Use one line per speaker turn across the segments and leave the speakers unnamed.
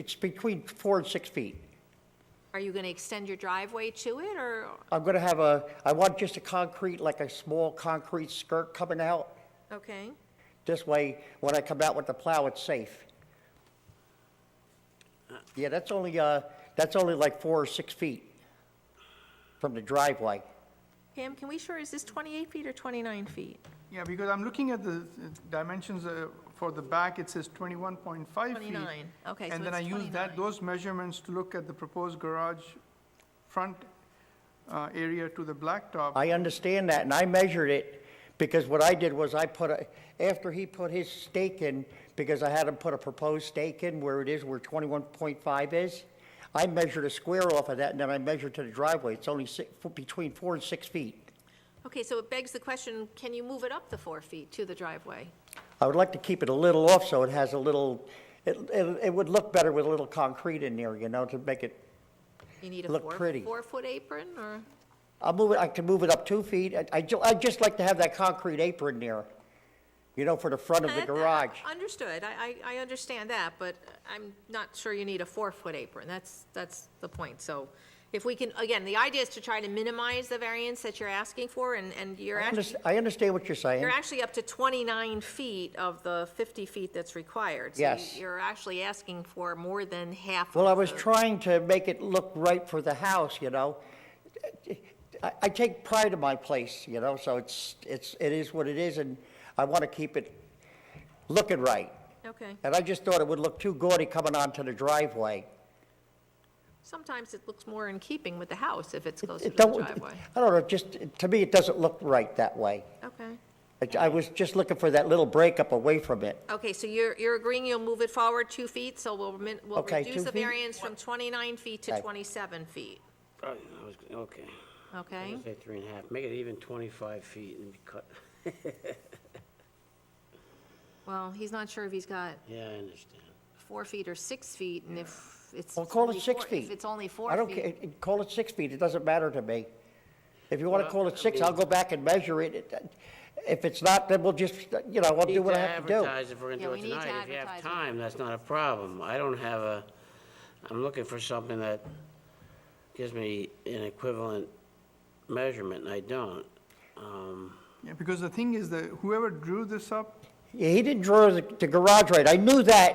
It's between four and six feet.
Are you going to extend your driveway to it, or,
I'm gonna have a, I want just a concrete, like a small concrete skirt coming out.
okay?
This way, when I come out with the plow, it's safe. Yeah, that's only, uh, that's only like four or six feet from the driveway.
Pam, can we sure, is this 28 feet or 29 feet?
Yeah, because I'm looking at the uh, dimensions uh, for the back, it says 21.5 feet.
29. Okay, so
And then I
it's
use
29.
that, those measurements to look at the proposed garage front uh, area to the blacktop.
I understand that, and I measured it, because what I did was I put a, after he put his stake in, because I had him put a proposed stake in where it is, where twenty-one point five is, I measured a square off of that, and then I measured to the driveway, it's only six, between four and six feet.
Okay, so it begs the question, can you move it up the four feet to the driveway?
I would like to keep it a little off, so it has a little, it, it, it would look better with a little concrete in there, you know, to make it,
You need a
Look
four,
pretty.
four-foot apron, or?
I'll move it, I can move it up two feet, I, I ju- I'd just like to have that concrete apron there, you know, for the front of the
That- that-
garage.
Understood, I, I, I understand that, but I'm not sure you need a four-foot apron, that's, that's the point, so if we can, again, the idea is to try to minimize the variance that you're asking for, and, and you're
I
actually,
underst- I understand what you're saying.
you're actually up to 29 feet of the 50 feet that's required. So you-
Yes.
You're actually asking for more than half.
Well, I
of
was
the-
trying to make it look right for the house, you know? I, I take pride in my place, you know, so it's, it's, it is what it is, and I want to keep it looking right.
Okay,
And I just thought it would look too gaudy coming onto the driveway.
sometimes it looks more in keeping with the house if it's closer to
It
the
don't-
driveway.
I don't know, just, to me, it doesn't look right that way.
Okay.
I- I was just looking for that little breakup away from it.
Okay, so you're, you're agreeing you'll move it forward two feet, so we'll, min- we'll
Okay,
reduce
two
the
feet?
variance from 29 feet to
Okay.
27 feet,
Right, I was, okay. I was
okay?
gonna say three and a half, make it even 25 feet and be cut.
Well, he's not sure if he's got
Yeah, I understand.
four feet or six feet, and if it's.
Well, call
only
it six
four-
feet.
If it's only
I
four
don't care,
feet.
call it six feet, it doesn't matter to me. If you want to
Well,
call it
I
six,
mean-
I'll go back and measure it. It- If it's not, then we'll just, you know, I'll do what I have to
Need
do.
advertise if we're
Yeah,
gonna do
we
it
need to
tonight. If you have
advertise it.
time, that's not a problem. I don't have a, I'm looking for something that gives me an equivalent measurement, and I don't. Um,
Yeah, because the thing is that whoever drew this up,
Yeah, He didn't draw the the garage right, I knew that,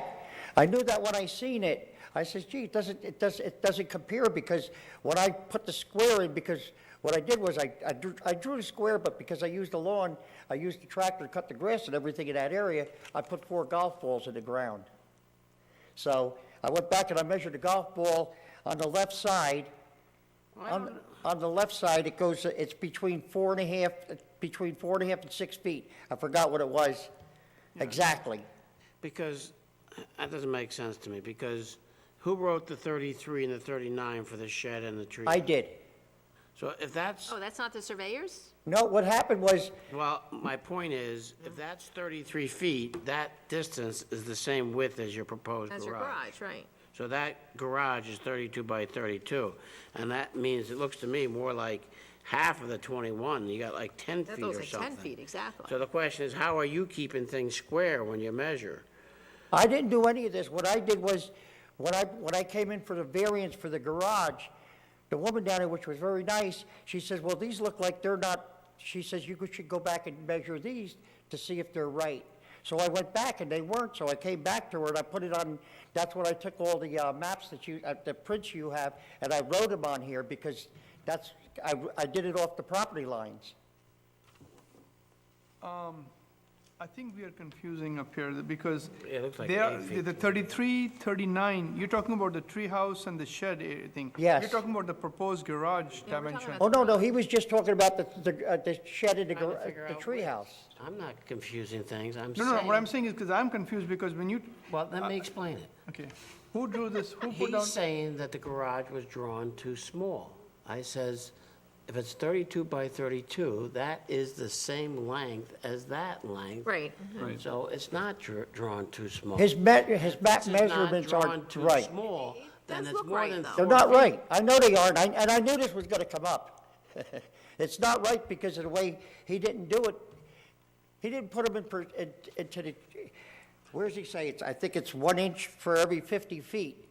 I knew that when I seen it. I says, gee, it doesn't, it does it doesn't compare, because when I put the square in, because what I did was I, I drew, I drew the square, but because I used the lawn, I used the tractor to cut the grass and everything in that area, I put four golf balls in the ground. So I went back and I measured the golf ball on the left side. On, on the left side, it goes, it's between four and a half, between four and a half and six feet. I forgot what it was exactly.
Because, that doesn't make sense to me, because who wrote the 33 and the 39 for the shed and the tree?
I did.
So if that's,
Oh, that's not the surveyors?
No, what happened was,
well, my point is,
Mm-hmm.
if that's 33 feet, that distance is the same width as your proposed garage.
That's your garage, right?
So that garage is 32 by 32, and that means, it looks to me more like half of the 21, you got like 10
That
feet or
looks
something.
like 10 feet, exactly.
So the question is, how are you keeping things square when you measure?
I didn't do any of this. What I did was, when I, when I came in for the variance for the garage, the woman down there, which was very nice, she says, well, these look like they're not, she says, you should go back and measure these to see if they're right. So I went back and they weren't, so I came back to her and I put it on, that's when I took all the uh, maps that you, uh, the prints you have, and I wrote them on here because that's, I, I did it off the property lines.
I think we are confusing up here, because
It looks like
they are,
eight feet.
the 33, 39, you're talking about the treehouse and the shed area thing.
Yes.
You're talking about the proposed
Yeah,
garage
we're talking
dimension.
about
Oh, no, no, he was just talking about the, the uh, the shed in the,
Trying to
gar-
figure
the
out
treehouse.
I'm not confusing things, I'm
No, no,
saying.
what I'm saying is, because I'm confused, because when you,
Well, let me explain it.
okay, who drew this, who put down?
He's saying that the garage was drawn too small. I says, if it's 32 by 32, that is the same length as that length.
Right.
So it's not dr- drawn too small.
His me, his map
If it's not
measurements
drawn
aren't
too
right.
small, then
does
it's
look
more
right,
than
though.
They're
four
not
feet.
right. I know they aren't, I- and I knew this was gonna come up. It's not right because of the way he didn't do it. He didn't put them in, per- in- into the, where does he say? It's, I think it's one inch for every 50 feet.